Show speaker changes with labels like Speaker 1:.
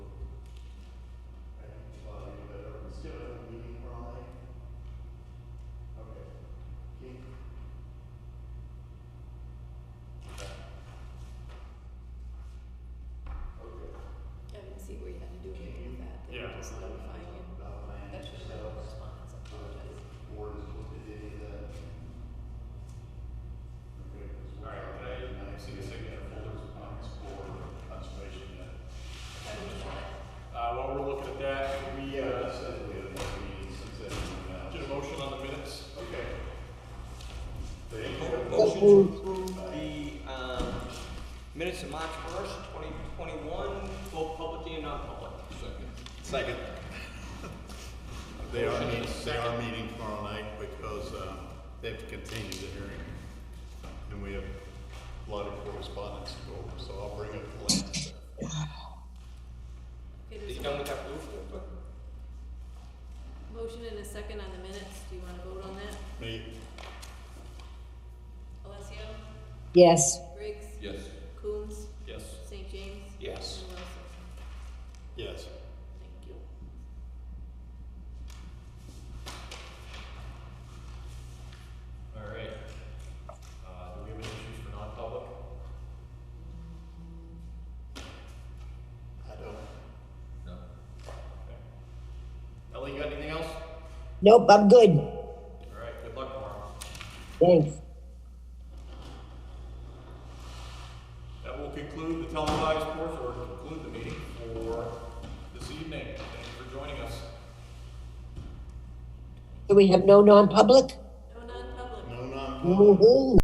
Speaker 1: just notify you. That should have been a response, I apologize.
Speaker 2: All right, can I see a signature folder on this for conservation yet?
Speaker 1: How do you want it?
Speaker 2: Uh, while we're looking at that, we,
Speaker 3: Yeah,
Speaker 2: uh,
Speaker 3: that's it, we have one meeting since then, and,
Speaker 2: did a motion on the minutes.
Speaker 3: uh, okay. Thank you.
Speaker 4: Motion to approve the, um, minutes of March first, twenty twenty-one, both public and non-public.
Speaker 3: Second. They are, they are meeting tomorrow night because, um, they have to continue the hearing. And we have a lot of correspondence to go over, so I'll bring it to Lance.
Speaker 1: Okay,
Speaker 4: Is
Speaker 1: there's
Speaker 4: he
Speaker 1: a
Speaker 4: done with that blue folder?
Speaker 1: motion and a second on the minutes, do you wanna vote on that?
Speaker 3: Me,
Speaker 1: Alessio?
Speaker 5: Yes.
Speaker 1: Briggs?
Speaker 6: Yes.
Speaker 1: Coombs?
Speaker 2: Yes.
Speaker 1: St. James?
Speaker 4: Yes.
Speaker 1: And Wilson?
Speaker 3: yes.
Speaker 1: Thank you.
Speaker 2: All right. Uh, do we have any issues for non-public?
Speaker 3: I don't.
Speaker 6: No.
Speaker 2: Okay. Ellie, you got anything else?
Speaker 5: Nope, I'm good.
Speaker 2: All right, good luck tomorrow.
Speaker 5: Thanks.
Speaker 2: That will conclude the televised portion, or conclude the meeting for this evening. Thank you for joining us.
Speaker 5: Do we have no non-public? Mm-hmm.
Speaker 1: No non-public.
Speaker 3: No, no.
Speaker 5: Woo-hoo.